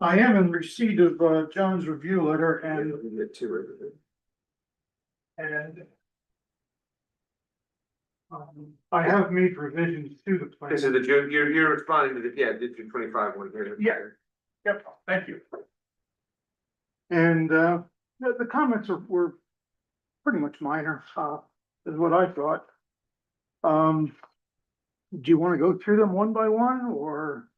I am in receipt of uh, John's review letter and, and um, I have made revisions to the plan. This is the, June- you're, you're responding to the, yeah, the June twenty-five one here. Yeah. Yep, thank you. And uh, the, the comments were, were pretty much minor, uh, is what I thought. Um, do you wanna go through them one by one, or?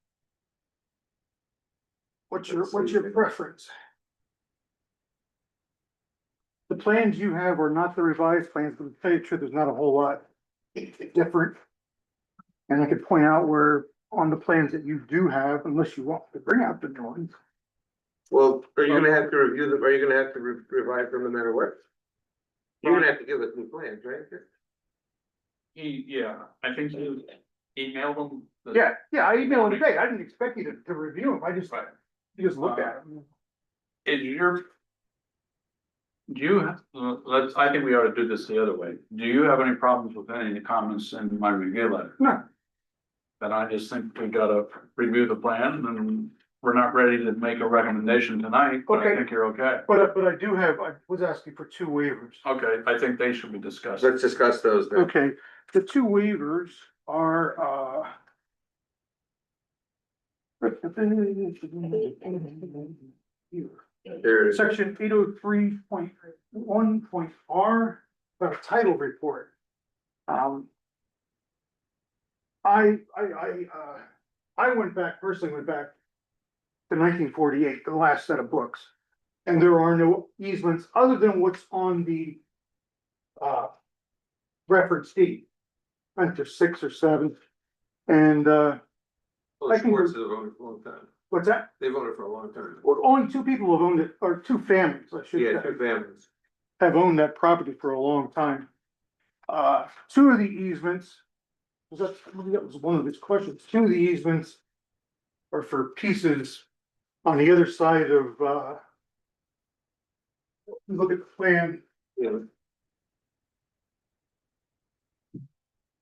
What's your, Let's what's see. your preference? The plans you have are not the revised plans, but to tell you the truth, there's not a whole lot different. And I could point out where on the plans that you do have, unless you want to bring out the drawings. Well, are you gonna have to review them, are you gonna have to re- revise them no matter what? You're gonna have to give us new plans, right? He, yeah, I think you emailed them. the- Yeah, yeah, I emailed him today. I didn't expect you to, to review them. I just, Right. Uh, just looked at them. Is your. Do you, have- let's, I think we ought to do this the other way. Do you have any problems with any of the comments in my review letter? No. Then I just think we gotta review the plan and we're not ready to make a recommendation tonight, but Okay. I think you're okay. But, I- but I do have, I was asking for two waivers. Okay, I think they should be discussed. Let's discuss those then. Okay, the two waivers are, uh. There it is. Section eight oh three point one point R, about a title report. Um. I, I, I, uh, I went back, personally went back to nineteen forty-eight, the last set of books. And there are no easements other than what's on the, uh, reference deed. Under six or seven. And, uh, Well, I can- Schwartz has owned it for a long time. what's that? They've owned it for a long time. Well, Only two people have owned it, or two families, I should Yeah, say. two families. have owned that property for a long time. Uh, two of the easements, was that, I believe that was one of his questions, two of the easements are for pieces on the other side of, uh, you look at the plan, Yeah,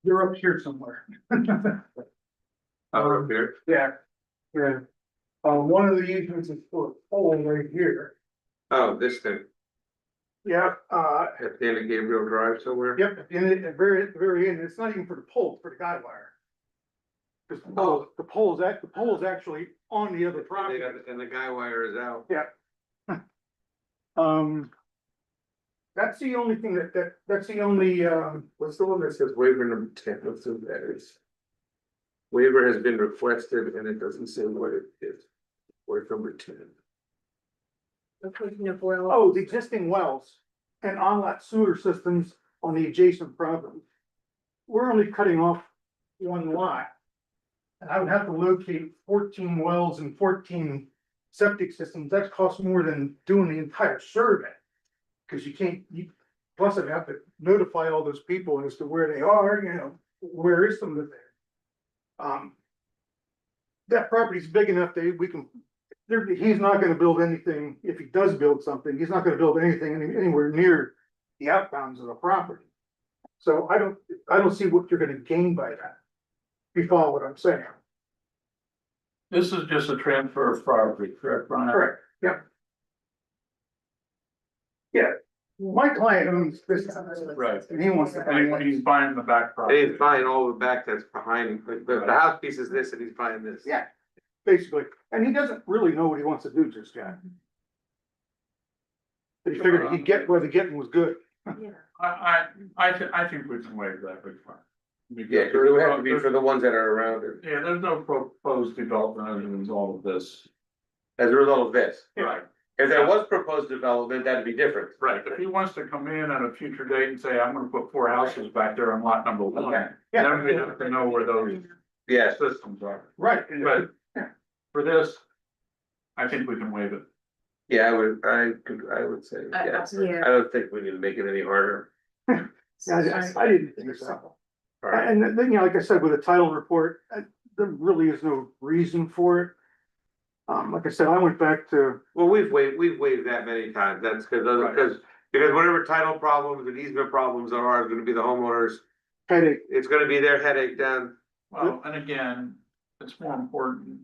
they're up here somewhere. over Uh, here. Yeah. Yeah. Uh, one of the easements is for a hole right here. Oh, this thing, Yeah, uh, at the end of Gabriel Drive somewhere? Yep, at the end, at the very, at the very end, it's not even for the pole, it's for the guide wire. Cause the pole, the pole is act, the pole is actually on the other And they property. got- And the guy wire is out. Um. That's the only thing that, that, that's the only, um, What's the one that says waiver number ten, what's the matters? Waiver has been requested and it doesn't say what it is. Waiver number ten. oh, the existing wells and on-lot sewer systems on the adjacent property. We're only cutting off one lot. And I would have to locate fourteen wells and fourteen septic systems. That costs more than doing the entire survey. Cause you can't, you, plus I'd have to notify all those people as to where they are, you know, where is some of it there? Um. That property's big enough that we can there, he's not gonna build anything, if he does build something, he's not gonna build anything any- anywhere near the outbounds of the property. So I don't, I don't see what you're gonna gain by that. If you follow what I'm saying. This is just a transfer of property, correct, Brian? Correct, yeah. Yeah, my client owns this house, Right. and he wants to. And he's buying the back And property. he's buying all the back that's behind, the, the the house piece is this and he's buying this. Yeah, basically, and he doesn't really know what he wants to do just yet. But he figured he'd get where the getting was good. I, I, I, thi- I think we can waive that requirement. Yeah, it would have to be for the ones that are around it, Yeah, there's no proposed development other than all of this. as a result of this. Right, If there was proposed development, that'd be different. right. If he wants to come in at a future date and say, I'm gonna put four houses back there on lot number Okay. one, Yeah. then we have to know where those Yes, systems are. Right. and- But for this, I think we can waive it. yeah, I would, I could, I would say, I- I- yes. yeah. I don't think we need to make it any harder. Yeah, I, I didn't think so. All right. And then, you know, like I said, with a title report, uh, there really is no reason for it. Um, like I said, I went back to, Well, we've waived, we've waived that many times, that's because, Right. because, because whatever title problems and easement problems there are, is gonna be the homeowners. try to It's gonna be their headache down Well, and again, it's more important